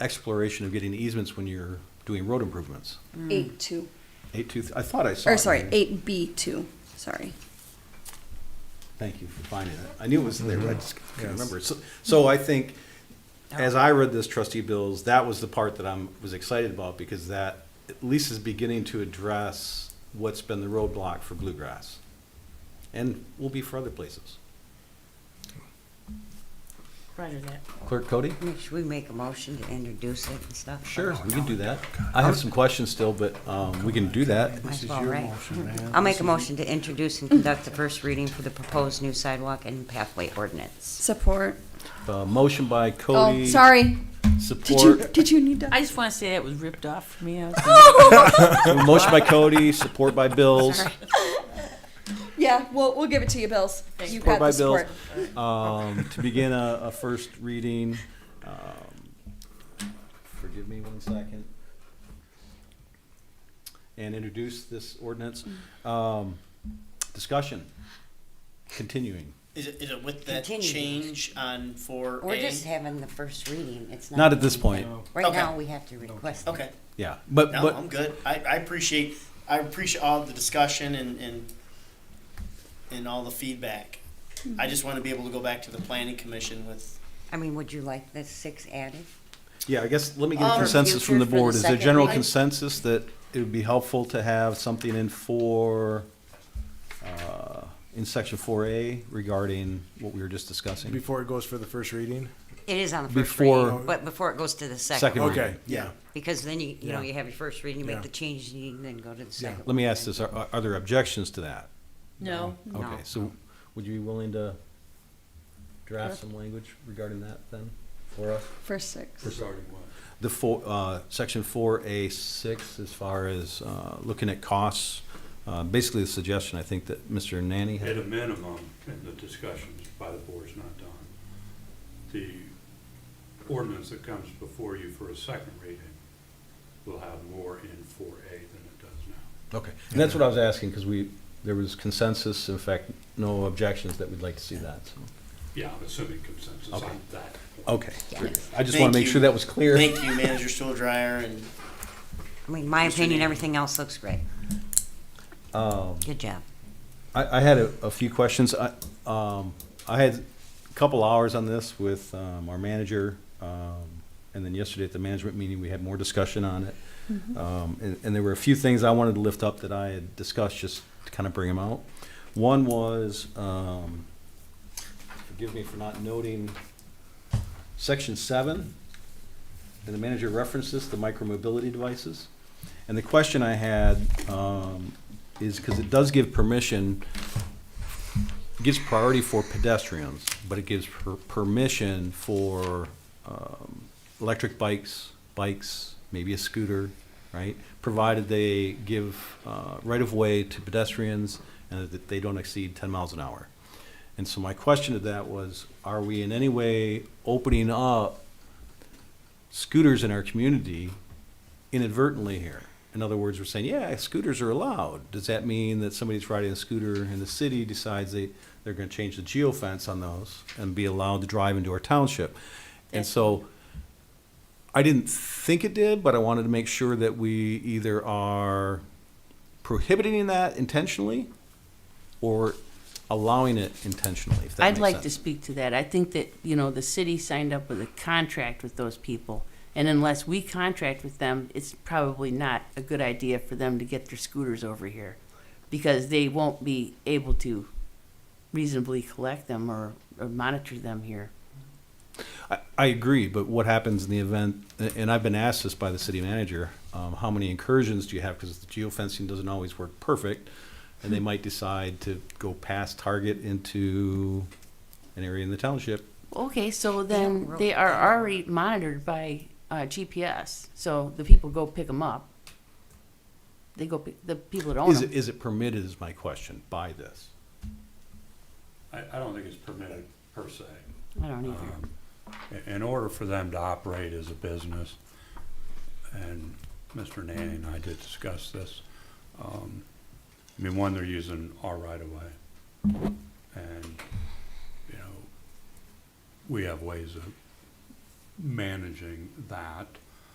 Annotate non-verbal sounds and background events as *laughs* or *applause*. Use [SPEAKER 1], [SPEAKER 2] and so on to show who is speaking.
[SPEAKER 1] exploration of getting easements when you're doing road improvements.
[SPEAKER 2] Eight two,
[SPEAKER 1] Eight two, I thought I saw.
[SPEAKER 2] or
[SPEAKER 1] it
[SPEAKER 2] sorry,
[SPEAKER 1] in here.
[SPEAKER 2] eight B two, sorry.
[SPEAKER 1] Thank you for finding it. I knew it was there, but I just couldn't
[SPEAKER 3] Yes.
[SPEAKER 1] remember. So, so I think,
[SPEAKER 2] Oh.
[SPEAKER 1] as I read this trustee bills, that was the part that I'm, was excited about because that at least is beginning to address what's been the roadblock for bluegrass. And will be for other places.
[SPEAKER 4] Roger that.
[SPEAKER 1] Clerk Cody?
[SPEAKER 5] I mean, Should we make a motion to introduce it and stuff?
[SPEAKER 1] Sure, we can do that. I have some questions still, but, um, we can do that.
[SPEAKER 5] Might as
[SPEAKER 3] is
[SPEAKER 5] well,
[SPEAKER 3] your
[SPEAKER 5] right?
[SPEAKER 3] motion, man.
[SPEAKER 5] I'll make a motion to introduce and conduct the first reading for the proposed new sidewalk and pathway ordinance.
[SPEAKER 2] Support.
[SPEAKER 1] Uh, motion by
[SPEAKER 2] Oh,
[SPEAKER 1] Cody.
[SPEAKER 2] sorry. Did you,
[SPEAKER 1] Support,
[SPEAKER 2] did you need to?
[SPEAKER 4] I just want to say that was ripped off from me. I *laughs* was gonna-
[SPEAKER 1] motion
[SPEAKER 5] *laughs*
[SPEAKER 1] by Cody, support by Bills.
[SPEAKER 2] Yeah, we'll, we'll give it to you, Bills. You got
[SPEAKER 1] Support by
[SPEAKER 2] the
[SPEAKER 1] Bills.
[SPEAKER 2] support.
[SPEAKER 1] Um, to begin a, a first reading, um, forgive me one second. And introduce this ordinance.
[SPEAKER 5] Mm.
[SPEAKER 1] Um, discussion, continuing.
[SPEAKER 6] Is it, is it with that
[SPEAKER 5] Continue.
[SPEAKER 6] change on four
[SPEAKER 5] We're just
[SPEAKER 6] A?
[SPEAKER 5] having the first reading, it's not.
[SPEAKER 1] Not at this point,
[SPEAKER 5] Right
[SPEAKER 6] Okay.
[SPEAKER 5] now, we have to request. it.
[SPEAKER 6] Okay,
[SPEAKER 1] yeah, but,
[SPEAKER 6] no,
[SPEAKER 1] but,
[SPEAKER 6] I'm good. I, I appreciate, I appreciate all the discussion and, and, and all the feedback.
[SPEAKER 5] Hmm.
[SPEAKER 6] I just want to be able to go back to the planning commission with,
[SPEAKER 5] I mean, would you like the six added?
[SPEAKER 1] yeah, I guess, let me get a
[SPEAKER 6] Um,
[SPEAKER 1] consensus from the
[SPEAKER 5] future for the
[SPEAKER 1] board. Is there
[SPEAKER 5] second
[SPEAKER 1] general
[SPEAKER 5] reading?
[SPEAKER 1] consensus that it would be helpful to have something in four, uh, in section four A regarding what we were just discussing?
[SPEAKER 3] Before it goes for the first reading?
[SPEAKER 5] It is on the first
[SPEAKER 1] Before-
[SPEAKER 5] reading, but before it goes to the
[SPEAKER 1] Second
[SPEAKER 5] second.
[SPEAKER 1] reading.
[SPEAKER 3] Okay, yeah.
[SPEAKER 5] Because then you, you know,
[SPEAKER 3] Yeah.
[SPEAKER 5] you have your first reading, you
[SPEAKER 3] Yeah.
[SPEAKER 5] make the change, and you then go to the
[SPEAKER 3] Yeah.
[SPEAKER 5] second.
[SPEAKER 1] Let me ask
[SPEAKER 5] one.
[SPEAKER 1] this, uh, are, are- are there objections to that?
[SPEAKER 4] No,
[SPEAKER 5] No.
[SPEAKER 1] Okay, so would you be willing to draft some language regarding that then, for us?
[SPEAKER 2] For six.
[SPEAKER 1] The four, uh, section four A six, as far as, uh, looking at costs, uh, basically the suggestion, I think, that Mr. Nanny
[SPEAKER 7] At a
[SPEAKER 1] had.
[SPEAKER 7] minimum, and the discussions by the board's not done, the ordinance that comes before you for a second reading will have more in four A than it does now.
[SPEAKER 1] Okay, and that's what I was asking, because we, there was consensus, in fact, no objections that we'd like to see that, so.
[SPEAKER 7] Yeah, I'm assuming consensus
[SPEAKER 1] Okay.
[SPEAKER 7] on that.
[SPEAKER 1] Okay, I just want
[SPEAKER 6] Thank
[SPEAKER 1] to make
[SPEAKER 6] you.
[SPEAKER 1] sure that was clear.
[SPEAKER 6] thank you, manager stool dryer and
[SPEAKER 5] I mean, my
[SPEAKER 6] Mr.
[SPEAKER 5] opinion,
[SPEAKER 6] Neely.
[SPEAKER 5] everything else looks great.
[SPEAKER 1] Um,
[SPEAKER 5] Good job.
[SPEAKER 1] I, I had a, a few questions. I, um, I had a couple hours on this with, um, our manager. Um, and then yesterday at the management meeting, we had more discussion on it. Um, and, and there were a few things I wanted to lift up that I had discussed, just to kind of bring them out. One was, um, forgive me for not noting, section seven, and the manager referenced this, the micromobility devices. And the question I had, um, is, because it does give permission, it gives priority for pedestrians, but it gives per- permission for, um, electric bikes, bikes, maybe a scooter, right? Provided they give, uh, right-of-way to pedestrians and that they don't exceed ten miles an hour. And so my question to that was, are we in any way opening up scooters in our community inadvertently here. In other words, we're saying, yeah, scooters are allowed. Does that mean that somebody's riding a scooter and the city decides they, they're gonna change the geofence on those and be allowed to drive into our township? And so, I didn't think it did, but I wanted to make sure that we either are prohibiting that intentionally or allowing it intentionally, if that
[SPEAKER 4] I'd
[SPEAKER 1] makes
[SPEAKER 4] like to
[SPEAKER 1] sense.
[SPEAKER 4] speak to that. I think that, you know, the city signed up with a contract with those people. And unless we contract with them, it's probably not a good idea for them to get their scooters over here. Because they won't be able to reasonably collect them or, or monitor them here.
[SPEAKER 1] I, I agree, but what happens in the event, a- and I've been asked this by the city manager, um, how many incursions do you have? Because the geofencing doesn't always work perfect, and they might decide to go past target into an area in the township.
[SPEAKER 4] Okay, so
[SPEAKER 5] They don't
[SPEAKER 4] then
[SPEAKER 5] really-
[SPEAKER 4] they are already monitored by uh, GPS. So the people go pick them up. They go pick, the people that own
[SPEAKER 1] Is
[SPEAKER 4] them.
[SPEAKER 1] it, is it permitted is my question by this?
[SPEAKER 7] I, I don't think it's permitted per se.
[SPEAKER 4] I don't either.
[SPEAKER 7] Um, i- In order for them to operate as a business, and Mr. Nanny and I did discuss this, um, I mean, one, they're using our right-of-way. And, you know, we have ways of managing that.